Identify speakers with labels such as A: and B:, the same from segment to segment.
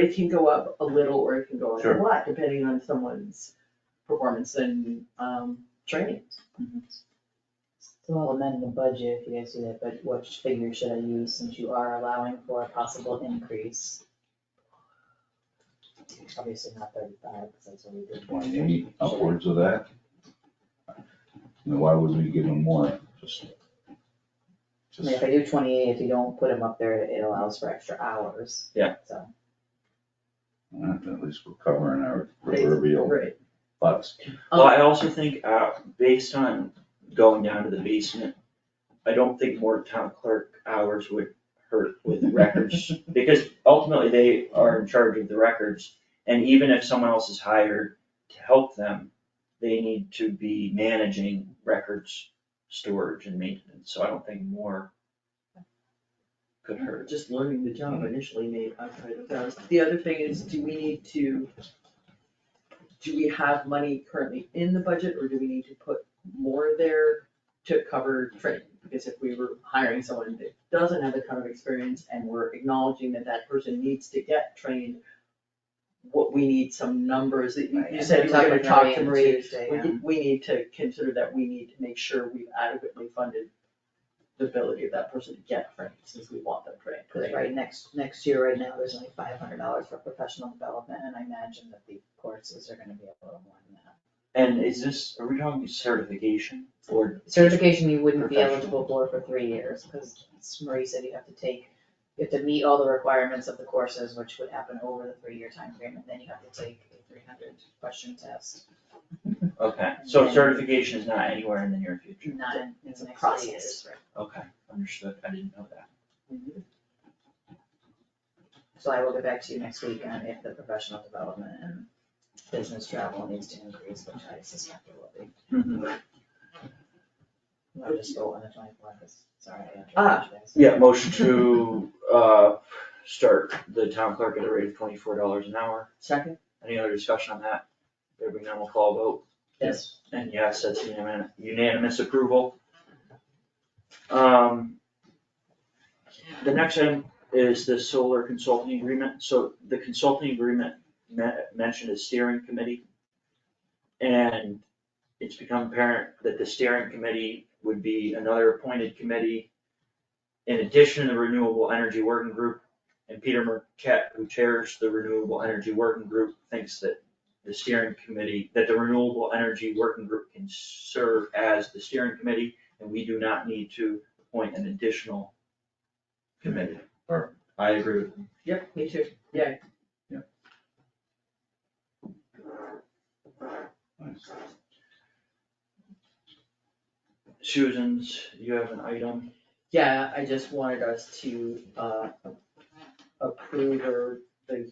A: it can go up a little or it can go up a
B: Sure.
A: lot, depending on someone's performance and, um, training.
C: So I'll amend the budget if you guys do that, but what figure should I use since you are allowing for a possible increase? Obviously not thirty-five, because that's what we did.
D: twenty-eight, upwards of that. You know, why would we give them more? Just.
C: I mean,
D: just
C: if I do twenty-eight, if you don't put them up there, it allows for extra hours.
B: Yeah.
C: So,
D: well, uh, At least we're covering our proverbial
A: Right.
D: butts.
B: Well, I also think, uh, based on going down to the basement, I don't think more town clerk hours would hurt with records. Because ultimately, they are in charge of the records, and even if someone else is hired to help them, they need to be managing records, storage and maintenance, so I don't think more could hurt.
A: Just learning the job initially made outside of those. The other thing is, do we need to, do we have money currently in the budget or do we need to put more there to cover training? Because if we were hiring someone that doesn't have a ton of experience and we're acknowledging that that person needs to get trained, what we need some numbers that you you said you were gonna talk to Marie
C: Tuesday, um,
A: we need, we need to consider that we need to make sure we've adequately funded the ability of that person to get trained, since we want them trained.
C: Because right next, next year, right now, there's only five hundred dollars for professional development, and I imagine that the courses are gonna be a little more than that.
B: And is this, are we talking certification or?
C: Certification you wouldn't be
B: Professional.
C: eligible for for three years, because Marie said you have to take, you have to meet all the requirements of the courses, which would happen over the three-year time frame, and then you have to take a three hundred question test,
B: Okay, so certification is not anywhere in the near future,
C: not in, in
A: It's a
C: the next
A: process.
C: three years.
B: okay, understood, I didn't know that.
C: So I will get back to you next week on if the professional development and business travel needs to increase, which I suspect it will be.
A: Mm-hmm.
C: I'll just go on the twenty-fourth, sorry, I
A: Ah,
C: interrupted you guys.
B: Yeah, motion to, uh, start the town clerk at a rate of twenty-four dollars an hour.
A: Second?
B: Any other discussion on that? There being none, we'll call a vote.
A: Yes.
B: And yes, that's unanimous, unanimous approval. Um, the next item is the solar consulting agreement. So the consulting agreement me- mentioned a steering committee. And it's become apparent that the steering committee would be another appointed committee in addition to the Renewable Energy Working Group. And Peter Marquette, who chairs the Renewable Energy Working Group, thinks that the steering committee, that the Renewable Energy Working Group can serve as the steering committee, and we do not need to appoint an additional committee.
D: Or-
B: I agree with.
A: Yep, me too, yeah.
B: Susan's, you have an item?
A: Yeah, I just wanted us to, uh, approve or the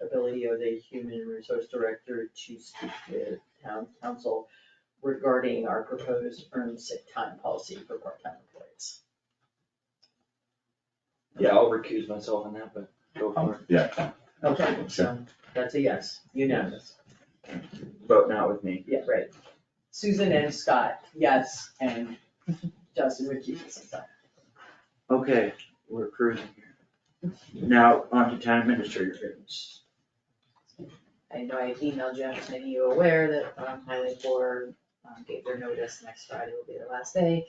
A: ability of the human resource director to speak with town council regarding our proposed earned sick time policy for part-time employees.
B: Yeah, I'll recuse myself on that, but go for it.
D: Um, Yeah, come.
A: Okay, so that's a yes, unanimous.
B: Vote not with me.
A: Yeah, right. Susan and Scott, yes, and Justin recused himself.
B: Okay, we're cruising here. Now, on to town administrator business.
C: I know I emailed you, I'm just making you aware that um, Highway Four um, gave their notice, next Friday will be their last day.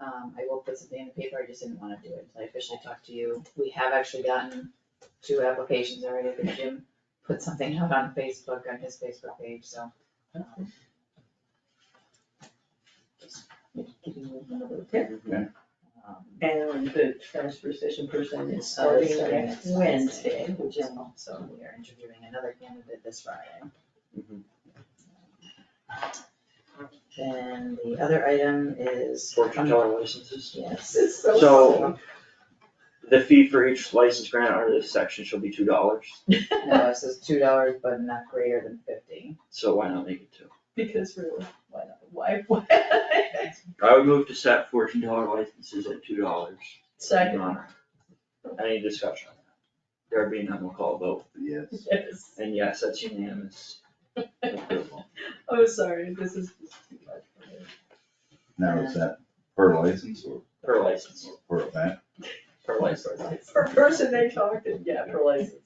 C: Um, I will put something in the paper, I just didn't wanna do it until I officially talked to you. We have actually gotten two applications already, but Jim put something out on Facebook, on his Facebook page, so. um, just Keeping moving a little bit.
D: Okay.
C: Um,
A: And the transfer station person is
C: so
A: starting next Wednesday, which is.
C: So we are interviewing another candidate this Friday.
B: Mhm.
C: Then the other item is. um,
B: Fortune teller licenses.
C: Yes.
A: It's
B: So- The fee for each license grant under this section shall be two dollars,
C: No, it says two dollars, but not greater than fifty.
B: so why not make it two?
A: Because really, why, not? why, why?
B: I would move to set fourteen dollar licenses at two dollars.
A: Second,
B: Any discussion on that? There being none, we'll call a vote,
D: Yes.
A: yes,
B: and yes, that's unanimous approval.
A: oh, sorry, this is just too much for me.
D: Now, is that per license or
B: Per license,
D: or per event?
B: per license.
A: For a person they talked to, yeah, for license.